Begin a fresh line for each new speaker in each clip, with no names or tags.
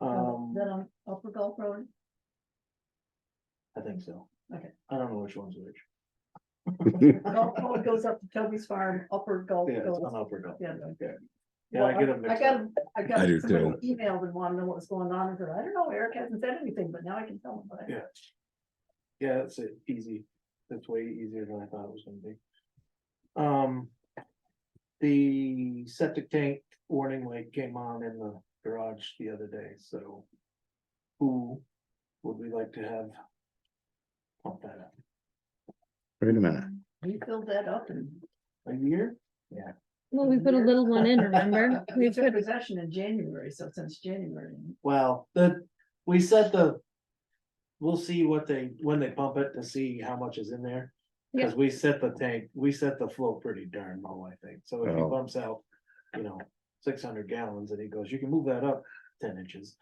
Um,
Is Oh, that on Upper Gulf Road?
I think so.
Okay.
I don't know which one's which.
Gulf Road goes up to Toby's Farm, Upper Gulf
Yeah, it's
goes.
on upward.
Oh, Yeah.
Okay. Yeah, I
Well,
get them
I
mixed
got,
up.
'em- I
I
got
do
somebody emailed and wanted to know what was going on, and said, I don't know, Eric hasn't said anything, but now I can tell him. what I-
Yeah. Yeah, it's uh, easy. That's way easier than I thought it was gonna be. Um. The septic tank warning light came on in the garage the other day, so. Who would we like to have? Pump that up.
Wait a minute.
We filled that up and
Are you here?
Well, we put a
Year.
little one in, remember?
we
We
took
put,
possession in January, so since January.
Well, the, we set the. We'll see what they, when they pump it to see how much is in there.
Yeah.
Cause we set the tank, we set the flow pretty darn low, I think. So if he
Oh.
bumps out, you know, six hundred gallons and he goes, you can move that up ten inches.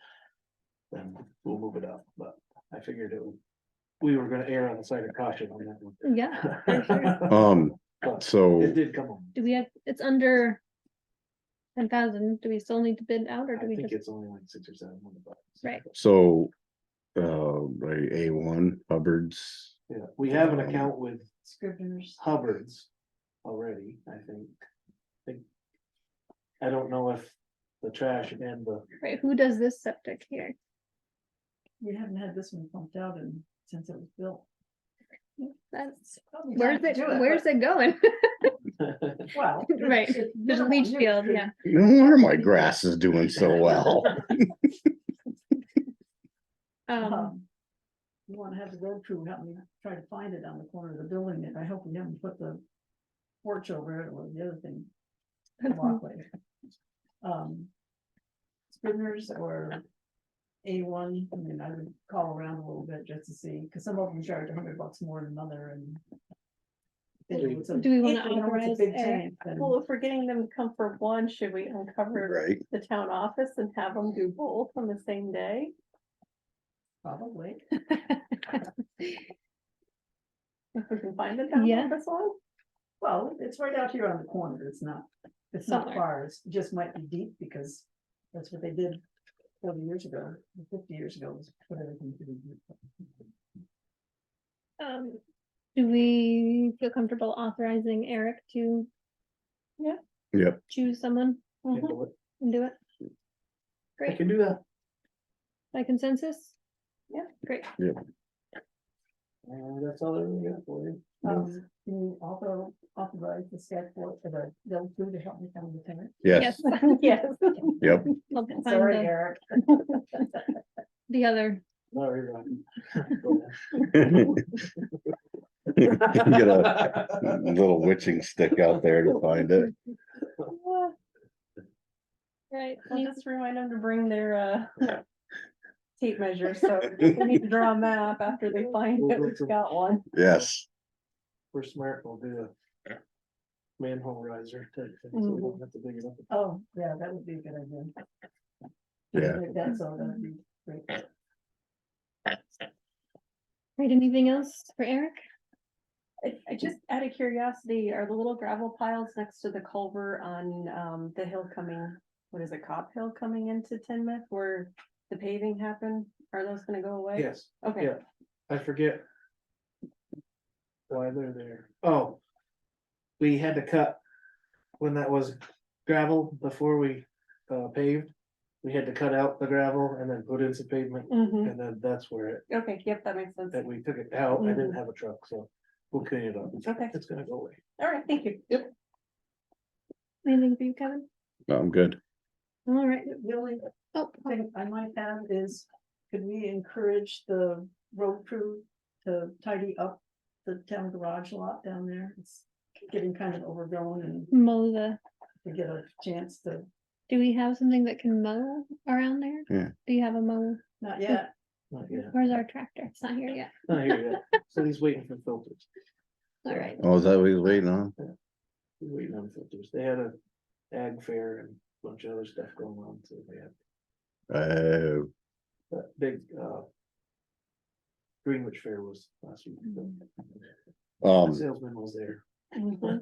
Then we'll move it up, but I figured it, would- we were gonna err on the side of caution on that
yeah, for sure.
one.
Um,
But It
so
did come on.
do we have, it's under ten thousand, do we still need to bid out or
I
do we
think
just,
it's only like six or seven hundred bucks.
Right.
so uh right, A one Hubbard's.
Yeah, we have an account with
Scribner's.
Hubbard's already, I think. Think- I don't know if the trash and the,
right, who does this septic here?
We haven't had this one pumped out in, since it was built.
That's,
Probably time
where's
to
it,
do
where's it going?
but- Well.
Right,
it's- it's
There's a
minimal.
leach
You
field,
could-
yeah.
No wonder my grass is doing so well.
Um,
um, You wanna have the road crew help me try to find it on the corner of the building, and I hope we haven't put the porch over it or the other thing. walkway. Um. Scribner's or A one, I mean, I would call around a little bit just to see, because some of them charge a hundred bucks more than another and.
Do
then
we-
it's a-
Do we wanna
if it's a
authorize
big
Eric?
tank, then-
Well, if we're getting them to come for one, should we uncover
Right,
the town office and have them do both on the same day?
Probably.
If we can find the town
Yeah.
office one?
Well, it's right out here on the corner. It's not, it's not
Somewhere.
far. It's just might be deep because that's what they did thirty years ago, fifty years ago, was put everything through.
um, do we feel comfortable authorizing Eric to
yep,
choose someone Uh-huh,
Mhm.
and do it?
I
Great,
can do that.
by consensus?
Yeah.
Great,
And Uh, that's all I really got for you.
Um, can you also authorize the staff for the, they'll do to help me find the tenant?
yes,
yes,
Yes.
yep,
I'll find
Sorry,
the-
Eric.
the other
Sorry, Rocky. Go
Get
ahead.
little witching stick out there to find it.
Well,
Right, you-
just remind them to bring their uh tape measure, so we need to draw a map after they find that we've got one.
Yes,
We're smart, we'll do a manhole riser. type thing, so we don't have to dig it up.
Oh, yeah, that would be a good idea.
Yeah.
Like That's all that'd be great.
right, anything else for Eric?
I, I just, out of curiosity, are the little gravel piles next to the culvert on, um, the hill coming, what is it, Cop Hill coming into Tinmouth where the paving happened? Are those gonna go away?
Yes.
Okay,
Yeah, I forget. Why they're there, oh. We had to cut. When that was gravel before we uh paved, we had to cut out the gravel and then put in some pavement.
hmm
And then that's where it,
okay, yep, that makes sense.
that we took it out, I didn't have a truck, so we'll clean it up,
Okay,
it's gonna go away.
all right, thank you. Yep.
Anything for you, Kevin?
I'm good.
All right,
The only
oh,
thing I might have is, could we encourage the road crew to tidy up the town garage lot down there? It's getting kind of overgrown and
mow the,
to get a chance to,
do we have something that can mow around there?
Yeah.
Do you have a mow?
not yet,
Not yet,
Where's our tractor? It's not here yet.
not Oh, here yet, so he's waiting for filters,
All right,
Oh, is that what he's waiting on?
he's waiting on filters, they had a ag fair and a bunch of other stuff going on, so they had
Uh,
that big uh. Greenwich Fair was last week. so the
um,
Salesman was there.
Mhm.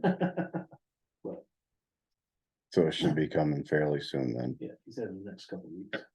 so it should be coming fairly soon then.
Yeah, he said in the next couple of weeks.